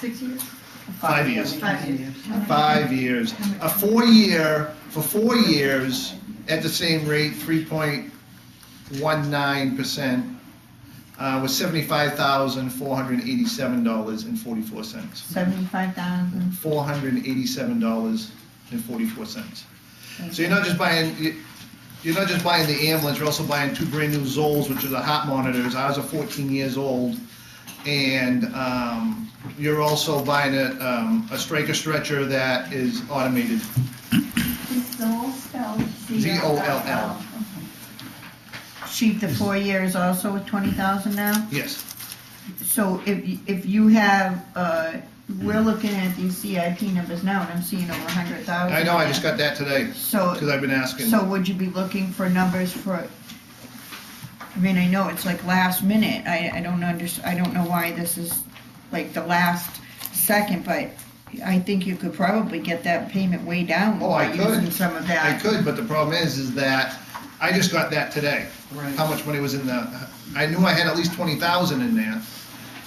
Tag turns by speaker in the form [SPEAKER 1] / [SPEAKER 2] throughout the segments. [SPEAKER 1] six years?
[SPEAKER 2] Five years.
[SPEAKER 1] Five years.
[SPEAKER 2] Five years. A four-year, for four years, at the same rate, three point one nine percent, uh, was seventy-five thousand, four hundred and eighty-seven dollars and forty-four cents.
[SPEAKER 3] Seventy-five thousand.
[SPEAKER 2] Four hundred and eighty-seven dollars and forty-four cents. So you're not just buying, you- you're not just buying the ambulance, you're also buying two brand-new Zolls, which are the heart monitors. Ours are fourteen years old. And um, you're also buying a, um, a Straker stretcher that is automated.
[SPEAKER 4] Is Zoll spelled
[SPEAKER 2] Z-O-L-L.
[SPEAKER 3] Sheet the four year is also at twenty thousand now?
[SPEAKER 2] Yes,
[SPEAKER 3] So if, y- if you have, uh, we're looking at these CIP numbers now, and I'm seeing over a hundred thousand.
[SPEAKER 2] I know, I just got that today,
[SPEAKER 3] So,
[SPEAKER 2] because I've been asking.
[SPEAKER 3] so would you be looking for numbers for, I mean, I know it's like last minute, I, I don't under, I don't know why this is like the last second, but I think you could probably get that payment way down
[SPEAKER 2] Oh, I
[SPEAKER 3] by
[SPEAKER 2] could.
[SPEAKER 3] using some of
[SPEAKER 2] I
[SPEAKER 3] that.
[SPEAKER 2] could, but the problem is, is that I just got that today.
[SPEAKER 1] Right.
[SPEAKER 2] How much money was in the, I knew I had at least twenty thousand in there,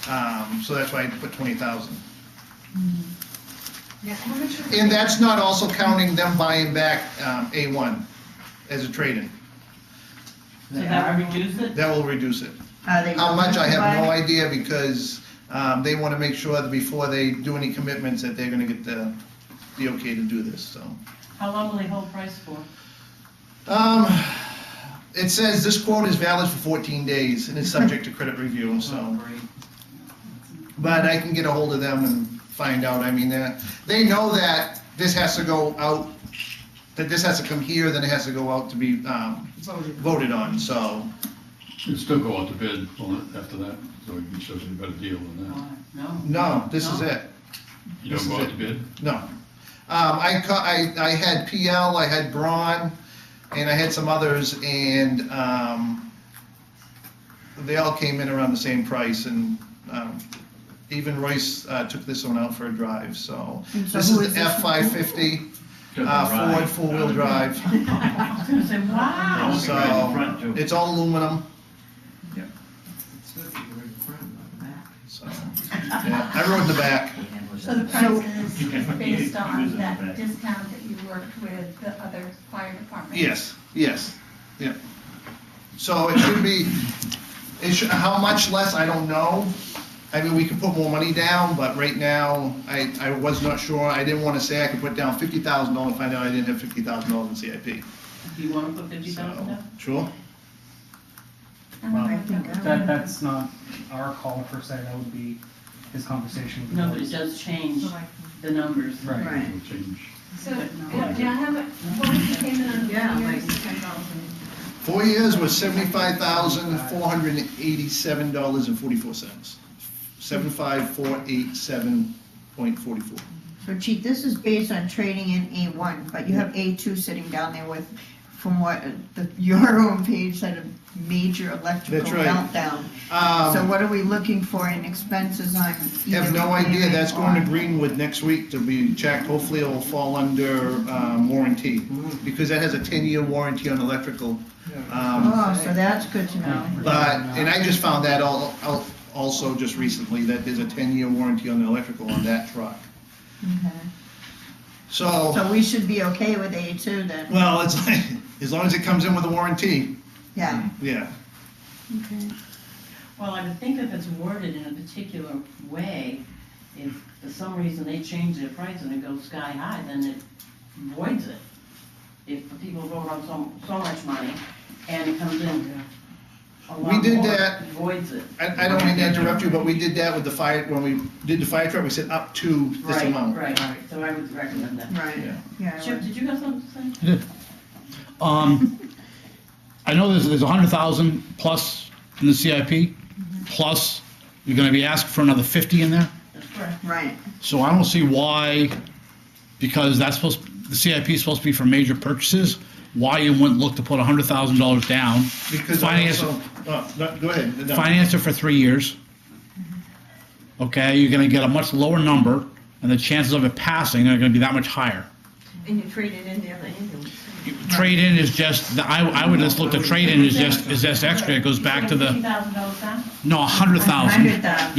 [SPEAKER 2] um, so that's why I put twenty thousand.
[SPEAKER 1] Yeah, how much? are-
[SPEAKER 2] And that's not also counting them buying back um, A1 as a trade-in.
[SPEAKER 5] So that would reduce it?
[SPEAKER 2] That will reduce it.
[SPEAKER 3] Are Uh, they
[SPEAKER 2] How much, I have no
[SPEAKER 3] willing
[SPEAKER 2] idea, because um, they want to make sure that before they do any commitments, that they're going to get the, the okay to do this, so.
[SPEAKER 5] How long will they hold price for?
[SPEAKER 2] Um, It says this quote is valid for 14 days and is subject to credit review, so. But I can get a hold of them and find out, I mean, they're- they know that this has to go out, that this has to come here, then it has to go out to be um,
[SPEAKER 1] Voted.
[SPEAKER 2] voted on, so.
[SPEAKER 6] It'd still go out to bid on it after that, so you can show us a better deal than that.
[SPEAKER 5] No.
[SPEAKER 2] No, this is it,
[SPEAKER 6] You
[SPEAKER 2] This
[SPEAKER 6] don't go
[SPEAKER 2] is
[SPEAKER 6] out to bid?
[SPEAKER 2] no. Um, I, ca- I, I had PL, I had Braun, and I had some others, and, um, they all came in around the same price, and, um, even Royce, uh, took this one out for a drive, so.
[SPEAKER 3] And so
[SPEAKER 2] This
[SPEAKER 3] who
[SPEAKER 2] is
[SPEAKER 3] is
[SPEAKER 2] the
[SPEAKER 3] this one?
[SPEAKER 2] F five fifty, uh, Ford four-wheel drive,
[SPEAKER 5] I was gonna say, wow.
[SPEAKER 2] so, it's all aluminum. So, yeah, I rode the back.
[SPEAKER 4] So the price is based on that discount that you worked with the other fire department?
[SPEAKER 2] Yes, yes, yeah. So it should be, it should, how much less, I don't know. I mean, we could put more money down, but right now, I, I was not sure. I didn't wanna say I could put down fifty thousand dollars, find out I didn't have fifty thousand dollars in CIP.
[SPEAKER 5] Do you wanna put fifty thousand
[SPEAKER 2] So,
[SPEAKER 5] down?
[SPEAKER 2] sure,
[SPEAKER 4] I don't
[SPEAKER 3] I
[SPEAKER 4] know.
[SPEAKER 3] think I
[SPEAKER 7] That, that's not our call per se, that would be his conversation with the
[SPEAKER 5] No, but it
[SPEAKER 7] board.
[SPEAKER 5] does change the numbers.
[SPEAKER 7] Right.
[SPEAKER 3] Right.
[SPEAKER 6] It'll change.
[SPEAKER 4] So, yeah, yeah, how much, what was the payment on
[SPEAKER 1] Yeah,
[SPEAKER 4] the
[SPEAKER 1] like
[SPEAKER 4] years?
[SPEAKER 1] ten thousand.
[SPEAKER 2] four years was seventy-five thousand, four hundred and eighty-seven dollars and forty-four cents. Seven-five, four, eight, seven, point forty-four.
[SPEAKER 3] So Chief, this is based on trading in A1, but you have A2 sitting down there with, from what, uh, the, your own page said, a major electrical
[SPEAKER 2] That's right.
[SPEAKER 3] meltdown. So
[SPEAKER 2] Um,
[SPEAKER 3] what are we looking for in expenses on either?
[SPEAKER 2] have no idea,
[SPEAKER 3] repairing
[SPEAKER 2] that's going to
[SPEAKER 3] or-
[SPEAKER 2] Greenwood next week to be checked, hopefully it will fall under, um, warranty, because that has a ten-year warranty on electrical. Um,
[SPEAKER 3] Oh, so that's good to know.
[SPEAKER 2] but, and I just found that all, al- also just recently, that there's a ten-year warranty on the electrical on that truck.
[SPEAKER 3] Okay.
[SPEAKER 2] So,
[SPEAKER 3] So we should be okay with A2 then?
[SPEAKER 2] well, it's like, as long as it comes in with a warranty,
[SPEAKER 3] Yeah.
[SPEAKER 2] yeah.
[SPEAKER 5] Well, I would think if it's worded in a particular way, if for some reason they change their price and it goes sky high, then it voids it. If the people vote on so, so much money and it comes in a
[SPEAKER 2] We
[SPEAKER 5] lot
[SPEAKER 2] did
[SPEAKER 5] more,
[SPEAKER 2] that-
[SPEAKER 5] it voids it.
[SPEAKER 2] I, I don't mean to interrupt you, but we did that with the fire, when we did the fire truck, we said up to this
[SPEAKER 5] Right,
[SPEAKER 2] amount.
[SPEAKER 5] Right, so I would recommend that.
[SPEAKER 3] Right,
[SPEAKER 2] Yeah.
[SPEAKER 3] yeah.
[SPEAKER 5] Chip, did you have something to say?
[SPEAKER 8] Um, I know there's, there's a hundred thousand plus in the CIP, plus you're gonna be asked for another fifty in there.
[SPEAKER 5] That's correct.
[SPEAKER 3] Right,
[SPEAKER 8] So I don't see why, because that's supposed, the CIP is supposed to be for major purchases, why you wouldn't look to put a hundred thousand dollars down,
[SPEAKER 2] Because I
[SPEAKER 8] Finance-
[SPEAKER 2] also, oh, no, go ahead. no.
[SPEAKER 8] finance it for three years. Okay, you're gonna get a much lower number, and the chances of it passing are gonna be that much higher.
[SPEAKER 1] And you traded in the other ambulance.
[SPEAKER 8] Trade-in is just, I, I would just look, the trade-in is just, is just extra, it goes back to the,
[SPEAKER 5] Fifty thousand dollars down?
[SPEAKER 8] no, a hundred thousand.
[SPEAKER 3] $100,000.